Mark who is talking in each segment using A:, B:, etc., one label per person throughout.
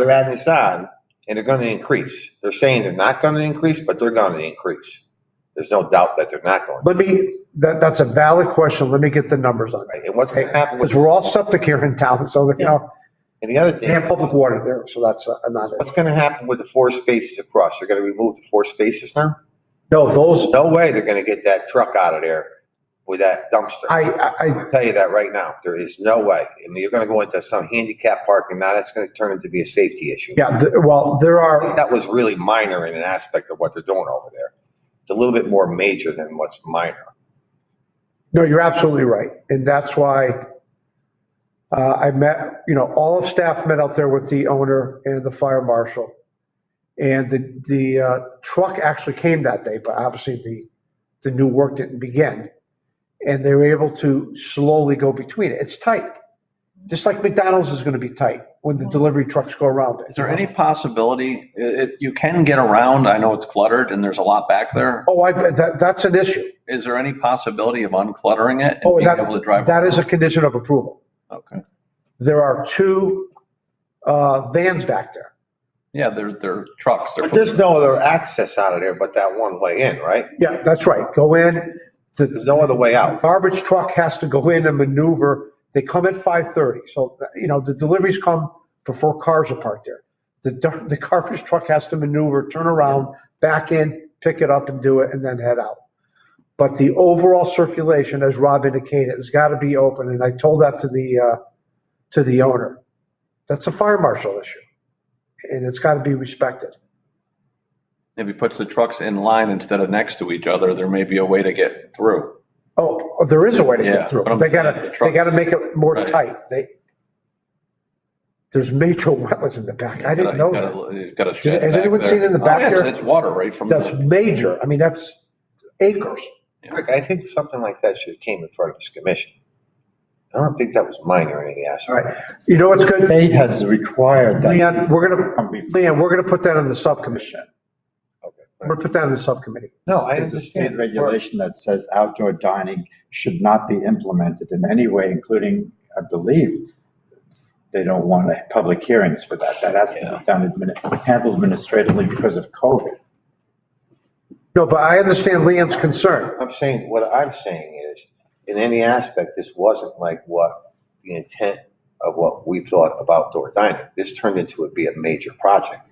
A: they're adding this on, and they're gonna increase. They're saying they're not gonna increase, but they're gonna increase. There's no doubt that they're not going,
B: Let me, that, that's a valid question. Let me get the numbers on
A: to.
B: it.
A: and what's gonna happen with,
B: Because we're all septic here in town, so, that, you know,
A: and the other
B: they have
A: thing,
B: public water there, so that's uh, a- another.
A: what's gonna happen with the four spaces across? They're gonna remove the four spaces now?
B: No,
A: There's
B: those,
A: no way they're gonna get that truck out of there with that dumpster.
B: I, I- I,
A: I'll tell you that right now. There is no way. And you're gonna go into some handicap parking. Now that's gonna turn into be a safety issue.
B: yeah, th- well, there
A: I think
B: are,
A: That was really minor in an aspect of what they're doing over there. It's a little bit more major than what's minor.
B: no, you're absolutely right. And that's why uh, I met, you know, all of staff met out there with the owner and the fire marshal. And the, the uh, truck actually came that day, but obviously the, the new work didn't begin. And they were able to slowly go between it. It's tight. Just like McDonald's is going to be tight when the delivery trucks go around it.
C: Is there any possibility, it, it- you can get around, I know it's cluttered and there's a lot back there.
B: Oh, I, bet that, that's an issue.
C: Is there any possibility of uncluttering it and
B: Oh,
C: being
B: that,
C: able to drive?
B: that is a condition of approval.
C: Okay.
B: There are two uh, vans back there.
C: Yeah, they're, they're trucks. They're
A: But there's no other access out of there but that one way in, right?
B: Yeah, that's right. Go in,
A: There's
B: the
A: no other way out.
B: garbage truck has to go in and maneuver. They come at 5:30, so, you know, the deliveries come before cars are parked there. The, dar- the garbage truck has to maneuver, turn around, back in, pick it up and do it, and then head out. But the overall circulation, as Rob indicated, has got to be open, and I told that to the, uh, to the owner. That's a fire marshal issue, and it's got to be respected.
C: If he puts the trucks in line instead of next to each other, there may be a way to get through.
B: Oh, there is a way to
C: Yeah,
B: get through,
C: but
B: but
C: I'm
B: they
C: saying
B: gotta,
C: the
B: they
C: truck-
B: gotta make it more
C: Right.
B: tight. They, there's major wetlands in the back. I didn't know that.
C: He's got a shed
B: Has
C: back
B: anyone
C: there.
B: seen in the
C: Oh,
B: back
C: yes,
B: there?
C: It's water right from
B: That's
C: the,
B: major. I mean, that's acres.
A: Rick, I think something like that should have came in front of this commission. I don't think that was minor in any
B: All
A: aspect.
B: right. You know what's good?
D: State has required that.
B: Leon, we're gonna, Leon, we're gonna put that on the subcommission. We're
A: Okay.
B: gonna put that on the subcommittee.
A: No, I
D: There's a state
A: understand.
D: regulation that says outdoor dining should not be implemented in any way, including, I believe, they don't want a- public hearings for that. That has to be done, admini- handled administratively because of COVID.
B: No, but I understand Leon's concern.
A: I'm saying, what I'm saying is, in any aspect, this wasn't like what the intent of what we thought of outdoor dining. This turned into it be a major project.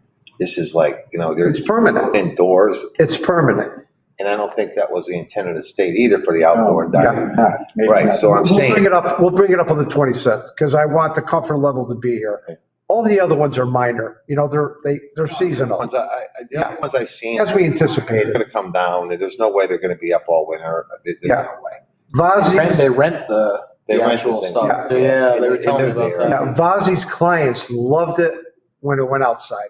A: This is like, you know, there's.
B: It's permanent.
A: Indoors,
B: It's permanent.
A: and I don't think that was the intent of the state either for the outdoor dining.
D: Not- maybe
A: Oh, Right,
D: not.
A: so I'm
B: We'll bring
A: saying,
B: it up, we'll bring it up on the 26th because I want the comfort level to be here. All the other ones are minor, you know, they're, they, they're seasonal.
A: ones I, I, the other ones I've seen.
B: As we
A: They're
B: anticipated.
A: gonna come down, there's no way they're gonna be up all winter, There- there's
B: Yeah.
A: no way.
E: Rent-
B: Vazi's,
E: They rent the,
A: They
E: the
A: rent the
E: actual
A: thing.
E: stuff.
A: Yeah.
E: Yeah, they were
A: In-
E: telling me
A: in their
E: about
A: day,
E: that.
B: yeah, Vazi's clients loved it when it went outside.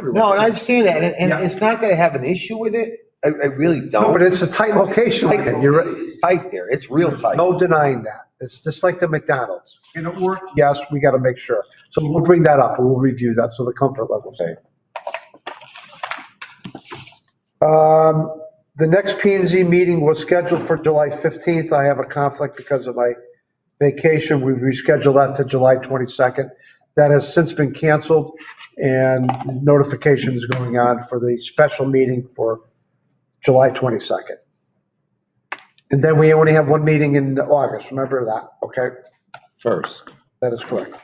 A: No, and I understand that, and, and
B: Yeah.
A: it's not that I have an issue with it, I, I really
B: No, but
A: don't.
B: it's a Oh. tight location. Leon. You're, right.
A: It's tight there, it's real tight.
B: no denying that. It's just like the McDonald's.
D: Can it work?
B: Yes, we got to make sure. So we'll bring that up and we'll review that. So the comfort level.
D: Okay.
B: Um, the next P and Z meeting was scheduled for July 15th. I have a conflict because of my vacation. We've rescheduled that to July 22nd. That has since been canceled and notification is going on for the special meeting for July 22nd. And then we only have one meeting in August. Remember that, okay?
D: First.
B: That is correct.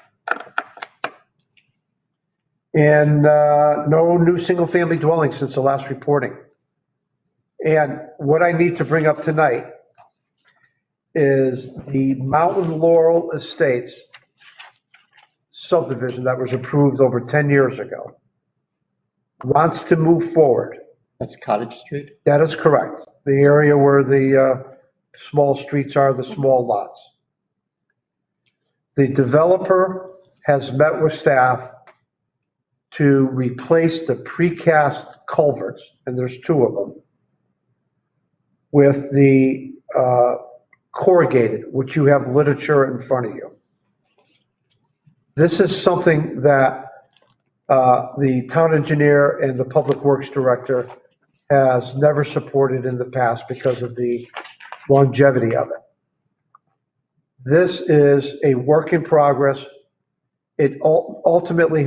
B: And uh, no new single-family dwelling since the last reporting. And what I need to bring up tonight is the Mountain Laurel Estates subdivision that was approved over 10 years ago. Wants to move forward.
D: That's Cottage Street?
B: That is correct. The area where the uh, small streets are, the small lots. The developer has met with staff to replace the precast culverts, and there's two of them, with the uh, corrugated, which you have literature in front of you. This is something that uh, the town engineer and the public works director has never supported in the past because of the longevity of it. This is a work in progress it ul- ultimately